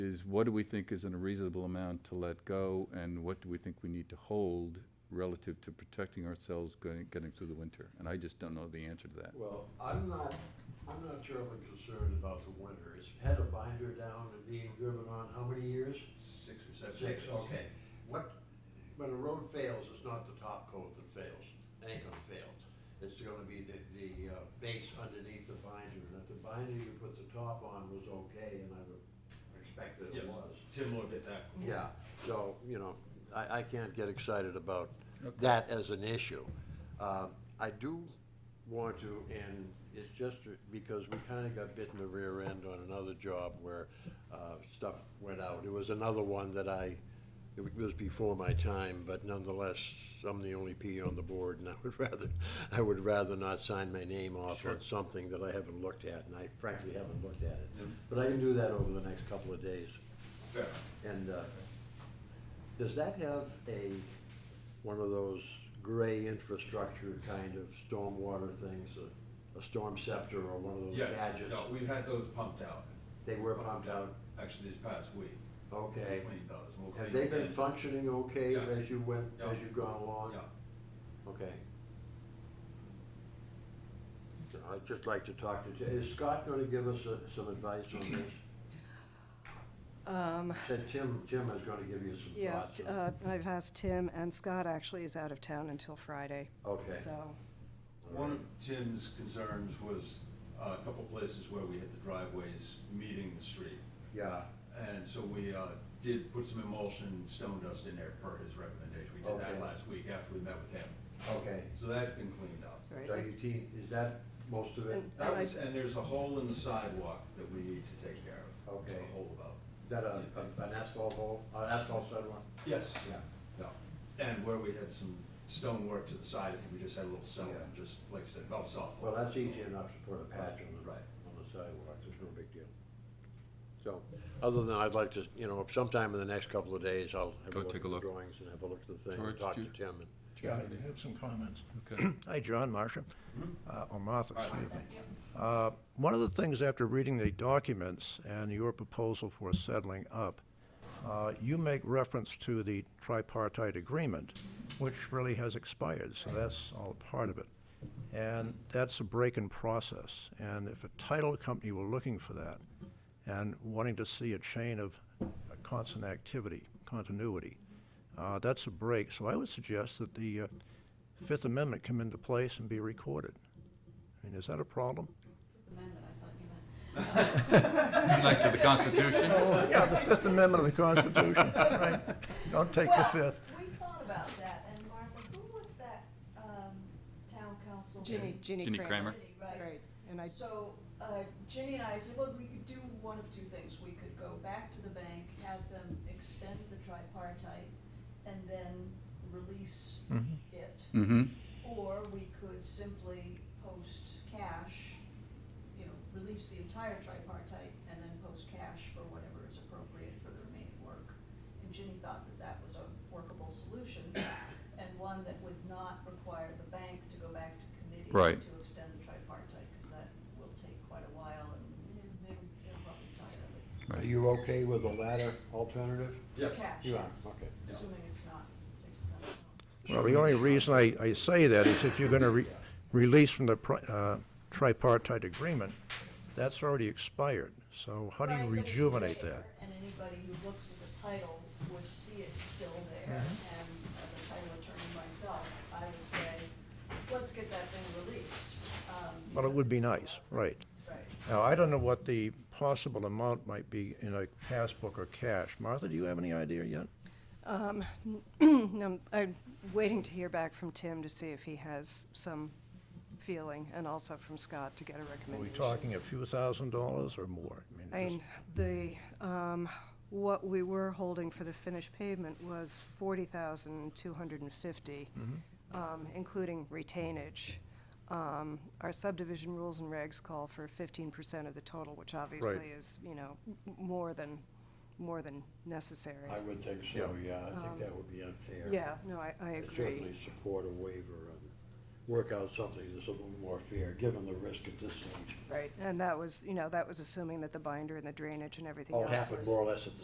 is what do we think is in a reasonable amount to let go, and what do we think we need to hold relative to protecting ourselves going, getting through the winter? And I just don't know the answer to that. Well, I'm not, I'm not terribly concerned about the winter. It's had a binder down and being driven on how many years? Six or seven. Six, years. okay. What, when a road fails, it's not the top coat that fails. It ain't gonna fail. It's gonna be the, the uh, base underneath the binder. And if the binder you put the top on was okay, and I would expect that Yes, it was. Tim looked at that. Yeah, so, you know, I, I can't get excited about that as an issue. Um, I do want to, and it's just because we kinda got bit in the rear end on another job where, uh, stuff went out. It was another one that I, it was before my time, but nonetheless, I'm the only P on the board, and I would rather, I would rather not sign my name off on something that I haven't looked at, and I frankly haven't looked at it. But I can do that over the next couple of days. Fair. And uh, does that have a, one of those gray infrastructure kind of stormwater things, a- a storm scepter or one of those Yes, gadgets? no, we've had those pumped out. They were pumped out, Actually, this past week. We okay. Cleaned those. We'll Have clean they been again. functioning okay Yes. as you went, Yeah. as you've gone along? Yeah, Okay. So I'd just like to talk to, Ti- is Scott going to give us uh, some advice on this? Um, Said Tim, Tim is going to give you some yeah, thoughts. t- on- uh, I've asked Tim, and Scott actually is out of town until Friday, Okay. so, One of Tim's concerns was uh, a couple places where we had the driveways meeting the street. Yeah, And so we uh, did put some emulsion, stone dust in there per his recommendation. We did Okay. that last week after we met with him. okay. So that's been cleaned up. right. So you te- is that most of it? And- That I- was, and there's a hole in the sidewalk that we need to take care of. Okay. A hole about. Is that a, a- an asphalt hole, an asphalt sidewalk? Yes. No, and where we had some stonework to the side, I think we just had a little cell, Yeah. just like I said, about soft. Well, that's easy enough to put a patch on the, Right. on the sidewalk, there's no big deal. So, other than I'd like to, you know, sometime in the next couple of days, I'll have a Go look take at a the look. drawings and have a look at the thing, and George, talk do to you- Tim and. Yeah, I have some comments. Okay. Hi, John, Marcia, Mhm. uh, or Martha, Hi. excuse me. Uh, One of the things after reading the documents and your proposal for settling up, uh, you make reference to the tripartite agreement, which really has expired, so that's all part of it. And that's a break in process, and if a title company were looking for that and wanting to see a chain of constant activity, continuity, uh, that's a break, so I would suggest that the uh, Fifth Amendment come into place and be recorded. I mean, is that a problem? Amendment, I thought you meant. Like to the Constitution? Yeah, the Fifth Amendment of the Constitution, right? Don't take the Well, Fifth. We thought about that, and Martha, who was that, um, town council? Ginny, Ginny Ginny Kramer. Ginny, Right. Right, and I, So, uh, Ginny and I said, well, we could do one of two things. We could go back to the bank, have them extend the tripartite, and then release Mhm. it. Mm-hmm. Or we could simply post cash, you know, release the entire tripartite and then post cash for whatever is appropriate for the remaining work. And Ginny thought that that was a workable solution and one that would not require the bank to go back to committee Right. to extend the tripartite, because that will take quite a while and they're, they're probably tired of it. Are you okay with the latter alternative? Yes. Cash, You are, yes, okay. Yeah. assuming it's not sixty thousand dollars. Well, the only reason I, I say that is if you're going to release from the pri- uh, tripartite agreement, that's already expired, so how do you Right, but it's rejuvenate there, that? And anybody who looks at the title would see it's still there, Mm-hmm. and as a title attorney myself, I would say, let's get that thing released. um, Well, it because would be it's still nice, out. right. Right. Now, I don't know what the possible amount might be in a passbook or cash. Martha, do you have any idea yet? um, no, I'm waiting to hear back from Tim to see if he has some feeling, and also from Scott to get a Are we recommendation. talking a few thousand dollars or more? I mean, I just- mean, the, um, what we were holding for the finished pavement was forty thousand two hundred and fifty, Mm-hmm. um, including retainage. Um, our subdivision rules and regs call for fifteen percent of the total, which obviously is, you know, m- more than, more than necessary. I would think so, yeah, I think that would be unfair. Um, Yeah, no, I, I I agree. Certainly support a waiver and work out something that's a little more fair, given the risk at this stage. Right, and that was, you know, that was assuming that the binder and the drainage and everything All else was. happened more or less at the